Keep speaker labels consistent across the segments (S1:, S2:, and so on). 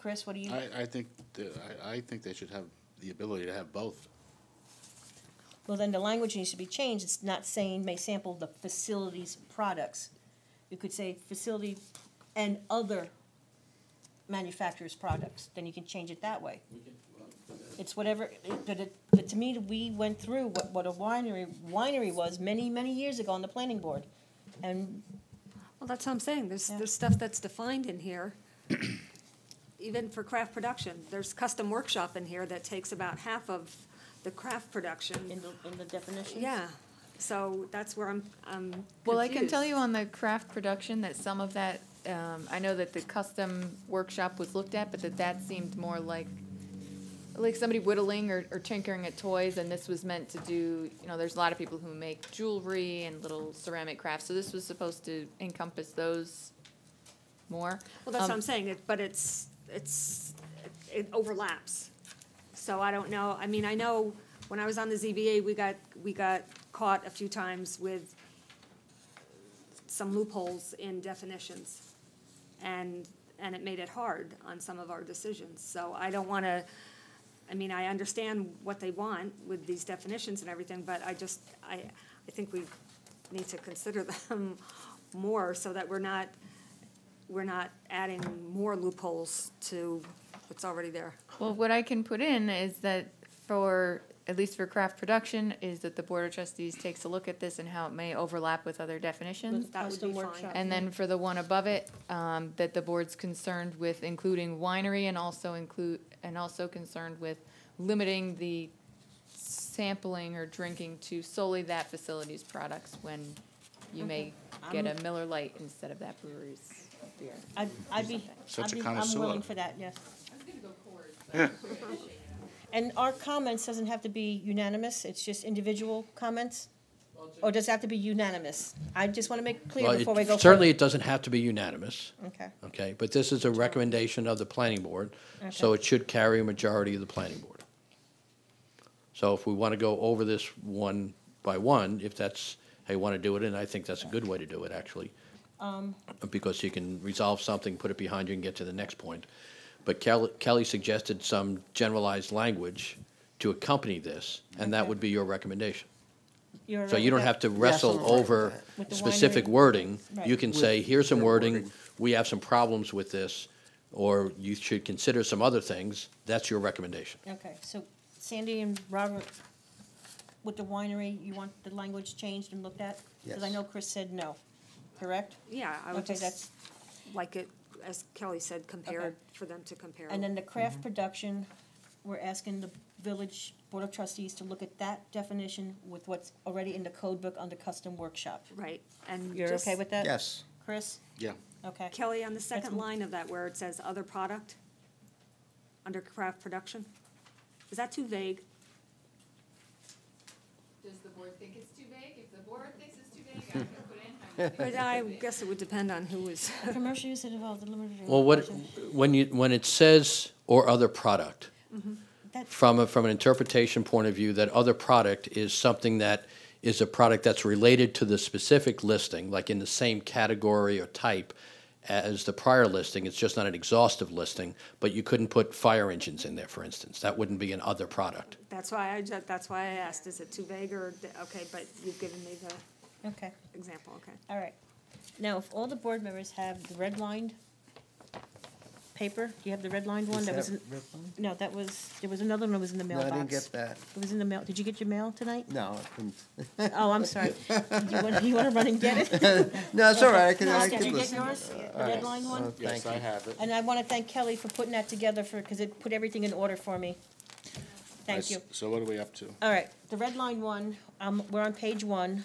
S1: Chris, what do you?
S2: I, I think, that- I, I think they should have the ability to have both.
S1: Well, then the language needs to be changed. It's not saying may sample the facility's products. You could say facility and other manufacturer's products, then you can change it that way. It's whatever, but it, but to me, we went through what, what a winery, winery was many, many years ago on the planning board. And
S3: Well, that's what I'm saying, there's,
S1: Yeah.
S3: there's stuff that's defined in here, even for craft production. There's custom workshop in here that takes about half of the craft
S1: in
S3: production.
S1: the, in the definition.
S3: Yeah, so that's where I'm, I'm
S4: Well, I can tell
S3: confused.
S4: you on the craft production that some of that, um, I know that the custom workshop was looked at, but that that seemed more like, like somebody whittling or, or tinkering at toys, and this was meant to do, you know, there's a lot of people who make jewelry and little ceramic crafts, so this was supposed to encompass those more.
S3: Well, that's what
S4: Um,
S3: I'm saying, it- but it's, it's, it- it overlaps. So I don't know, I mean, I know when I was on the ZBA, we got, we got caught a few times with some loopholes in definitions. And, and it made it hard on some of our decisions. So I don't want to, I mean, I understand what they want with these definitions and everything, but I just, I, I think we need to consider them more so that we're not, we're not adding more loopholes to what's already there.
S4: Well, what I can put in is that for, at least for craft production, is that the Board of Trustees takes a look at this and how it may overlap with other definitions.
S3: That would
S1: Custom
S3: be
S1: workshop.
S3: fine.
S4: And then for the one above it, um, that the board's concerned with including winery and also include, and also concerned with limiting the sampling or drinking to solely that facility's products when you may get
S3: Um,
S4: a Miller Lite instead of that brewery's beer.
S1: I'd, I'd be,
S2: Such
S1: I'd
S2: a
S1: be, I'm
S2: connoisseur.
S1: willing for that, yes. And our comments doesn't have to be unanimous, it's just individual comments? Or does it have to be unanimous? I just want to make
S5: Well,
S1: clear
S5: it-
S1: before we go.
S5: Certainly, it doesn't have to be unanimous,
S1: further. Okay,
S5: okay? But this is a recommendation of the planning board, so it should carry a majority of the planning board. So if we want to go over this one by one, if that's how you want to do it, and I think that's a good way to do it, actually.
S1: Um,
S5: Because you can resolve something, put it behind you, and get to the next point. But Kelly Kelly suggested some generalized language to accompany this, and that would be your recommendation.
S1: You're
S5: So you don't
S1: okay.
S5: have to wrestle
S6: Wrestle
S5: over
S1: With the
S5: specific
S1: winery.
S5: wording. You
S1: Right.
S5: can say, here's some
S6: With
S5: wording,
S6: wording.
S5: we have some problems with this, or you should consider some other things. That's your recommendation.
S1: Okay, so Sandy and Robert, with the winery, you want the language changed and looked at? Because I
S6: Yes.
S1: know Chris said no, correct?
S3: Yeah, I would
S1: Okay,
S3: just
S1: that's,
S3: like it, as Kelly said, compare,
S1: Okay.
S3: for them to compare.
S1: and then the
S6: Mm-hmm.
S1: craft production, we're asking the village board of trustees to look at that definition with what's already in the code book under custom workshop.
S3: Right, and
S1: You're
S3: just-
S1: okay with that?
S6: Yes.
S1: Chris?
S2: Yeah.
S1: Okay.
S3: Kelly, on the second
S1: m-
S3: line of that where it says other product, under craft production, is that too vague?
S7: Does the board think it's too vague? If the board thinks it's too vague, I can put in how you think
S3: But
S7: it's
S3: I
S7: too vague.
S3: guess it would depend on who was,
S1: Commercial use that involves the limited.
S5: Well, what, when you, when it says "or other product,"
S1: That's,
S5: from a, from an interpretation point of view, that other product is something that is a product that's related to the specific listing, like in the same category or type as the prior listing. It's just not an exhaustive listing, but you couldn't put fire engines in there, for instance. That wouldn't be an other product.
S3: that's why I, ju- that's why I asked, is it too vague or, okay, but you've given me the
S1: okay,
S3: example, okay.
S1: all right. Now, if all the board members have the redlined paper, do you have the redlined one?
S6: Is
S1: That was,
S6: that
S1: in-
S6: red line?
S1: no, that was, there was another one that was in the
S6: No, I
S1: mailbox.
S6: didn't get that.
S1: It was in the mail. Did you get your mail tonight?
S6: No, I couldn't.
S1: Oh, I'm sorry. Do you want, you want to run and get it?
S6: No, it's all right, I can, I
S1: Did
S6: can
S1: you get
S6: listen.
S1: yours, the redlined one?
S2: Yes, I have it.
S1: And I want to thank Kelly for putting that together for, because it put everything in order for me. Thank
S2: Nice.
S1: you.
S2: So what are we up to?
S1: All right, the red line one, um, we're on page one.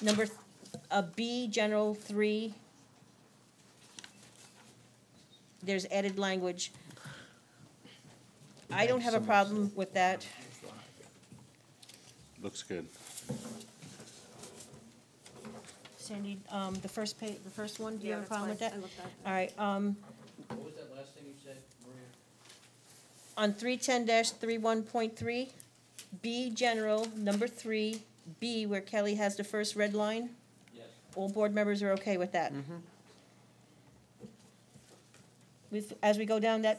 S1: Number, th- uh, B, general three. There's added language. I don't have a problem with that.
S2: Looks good.
S1: Sandy, um, the first pa, the first one, do you
S3: Yeah,
S1: have a
S3: that's
S1: problem with
S3: fine.
S1: that?
S3: I looked at it.
S1: All right, um,
S5: What was that last thing you said, Maria?
S1: on three ten dash three one point three, B, general, number three, B, where Kelly has the first red line.
S5: Yes.
S1: All board members are okay with that? with, as we go down that